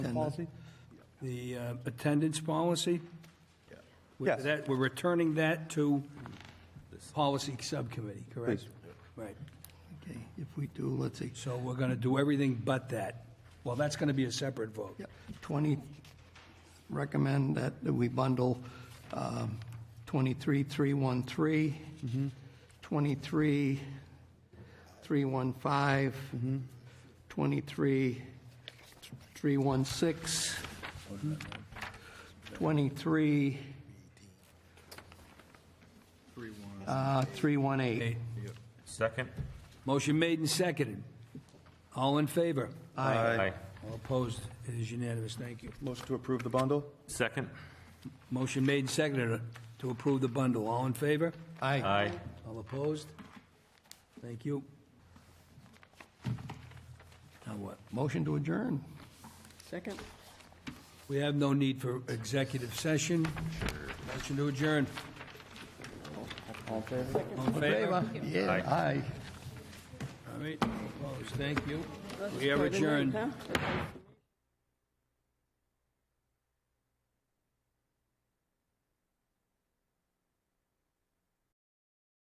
policy? The uh, attendance policy? We- Yes. that- We're returning that to policy subcommittee, correct? Please. Right. Okay, if we do, let's see, So we're going to do everything but that. Well, that's going to be a separate vote. yeah, 20, recommend that we bundle um, 23313, 23315, 23316, 23, uh, Okay. 318. Second? Motion made and seconded. All in favor? Aye. All opposed? It is unanimous. Thank you. Motion to approve the bundle? Second? Motion made and seconded uh, to approve the bundle. All in favor? Aye. Aye. All opposed? Thank you. Now what? Motion to adjourn. Second? We have no need for executive session. Motion to adjourn. All in favor? Yeah, aye. All right, opposed, thank you. We are adjourned. Huh?